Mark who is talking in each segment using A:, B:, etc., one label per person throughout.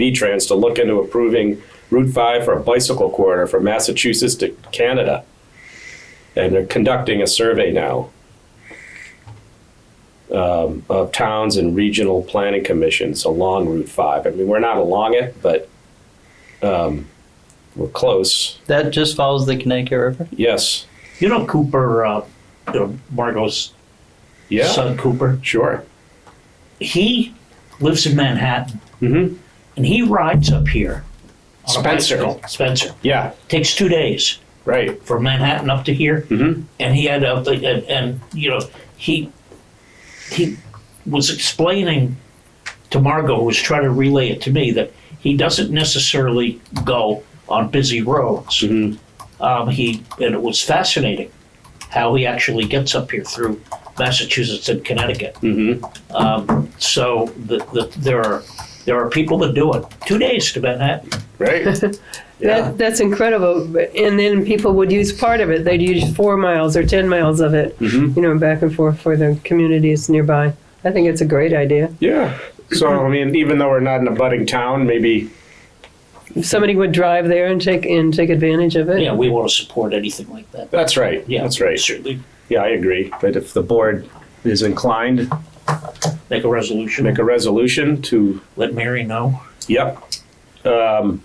A: V-Trans to look into approving Route 5 for a bicycle corridor from Massachusetts to Canada. And they're conducting a survey now um, of towns and regional planning commissions along Route 5. I mean, we're not along it, but um, we're close.
B: That just follows the Connecticut River?
A: Yes.
C: You know Cooper, uh, you know, Margot's
A: Yeah,
C: son Cooper.
A: sure.
C: He lives in Manhattan
A: hmm
C: and he rides up here. on a
A: Spencer.
C: bicycle. Spencer.
A: Yeah,
C: Takes two days
A: right.
C: from Manhattan up to here.
A: hmm
C: And he had a, and, and, you know, he, he was explaining to Margot, who was trying to relay it to me, that he doesn't necessarily go on busy roads.
A: hmm
C: um, he and it was fascinating how he actually gets up here through Massachusetts and Connecticut.
A: hmm
C: Um, so the, the, there are there are people that do it. Two days to Manhattan.
A: Right? Yeah,
D: That, that's incredible. But- And then people would use part of it. They'd use four miles or 10 miles of it,
A: Mhm.
D: you know, back and forth for the communities nearby. I think it's a great idea.
A: yeah. So, I mean, even though we're not in a budding town, maybe
D: If somebody would drive there and take and take advantage of it.
C: Yeah, we want to support anything like that.
A: That's right.
C: Yeah,
A: That's right.
C: Certainly
A: Yeah, I agree. But if the board is inclined,
C: make a resolution.
A: make a resolution to,
C: Let Mary know.
A: yep. Um,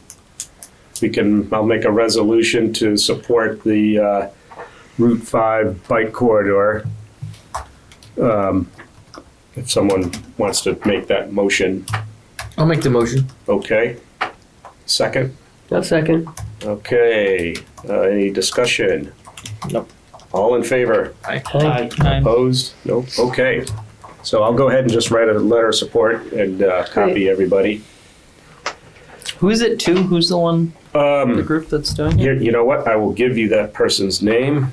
A: We can, I'll make a resolution to support the uh, Route 5 bike corridor. Um, If someone wants to make that motion,
E: I'll make the motion.
A: okay. Second?
D: I'll second.
A: Okay, uh, any discussion?
B: Nope.
A: All in favor?
C: Aye.
A: Opposed? Nope, okay. So I'll go ahead and just write a letter of support and uh, copy everybody.
B: Who is it to? Who's the one, the
A: Um,
B: group that's doing it?
A: You you know what, I will give you that person's name.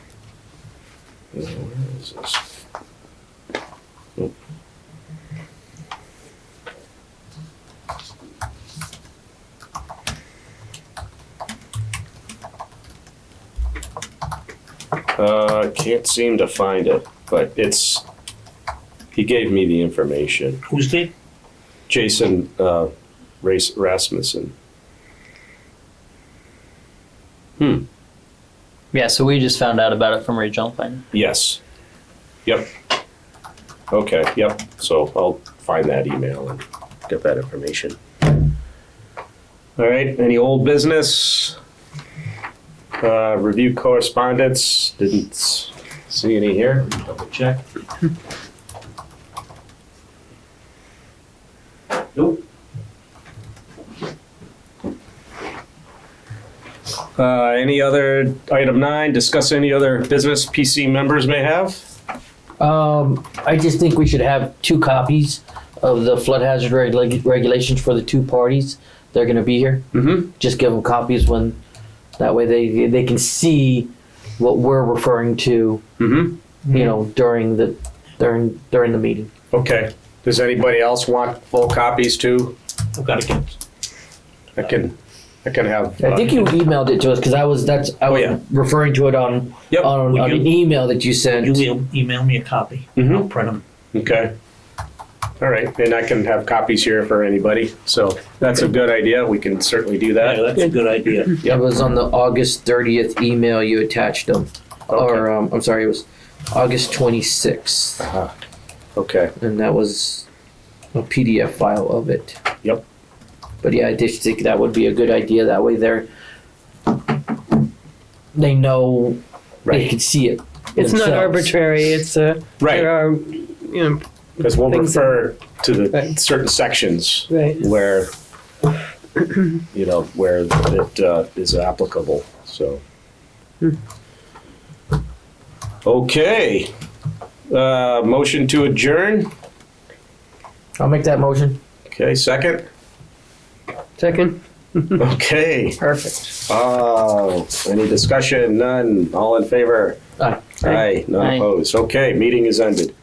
A: Uh, Where is this? Uh, can't seem to find it, but it's, he gave me the information.
C: Who's the?
A: Jason, uh, Ras- Rasmussen.
B: Yeah, so we just found out about it from regional planning.
A: Yes. Yep. Okay, yep. So I'll find that email and get that information. All right, any old business? Uh, review correspondence, didn't s- see any here, double check. Nope. Uh, any other, item nine, discuss any other business PC members may have?
E: Um, I just think we should have two copies of the flood hazard reg- regulations for the two parties. They're going to be here.
A: Mm-hmm.
E: Just give them copies when, that way they they can see what we're referring to.
A: Mm-hmm.
E: You know, during the during during the meeting.
A: Okay, does anybody else want full copies too?
C: I've got to get.
A: I can, I can have.
E: I think you emailed it to us because I was that's I
A: Oh,
E: was
A: yeah.
E: referring to it on
A: uh, Yep.
E: on,
C: Would
E: on
C: you-
E: an email that you sent.
C: You will email me a copy.
A: Mhm.
C: I'll print them.
A: Okay. All right, and I can have copies here for anybody, so that's a good idea, we can certainly do
C: Yeah,
A: that.
C: that's a good idea.
E: It was on the August 30th email you attached them. Or, um, I'm sorry, it was August 26th.
A: Uh-huh. Okay,
E: And that was a PDF file of it.
A: Yep.
E: But yeah, I just think that would be a good idea. That way they're, they know, they
A: right,
E: can see it.
D: It's not
E: themselves.
D: arbitrary. It's uh, there
A: right,
D: are, you know,
A: because we'll
D: Things that-
A: refer to the
D: Right.
A: certain sections
D: right.
A: where, you know, where it uh, is applicable, so. Okay, uh, motion to adjourn,
E: I'll make that motion.
A: okay, second?
D: Second.
A: Okay.
D: Perfect.
A: Oh, any discussion? None. All in favor?
E: Aye.
A: Aye. None
B: Aye.
A: opposed. Okay, meeting is ended.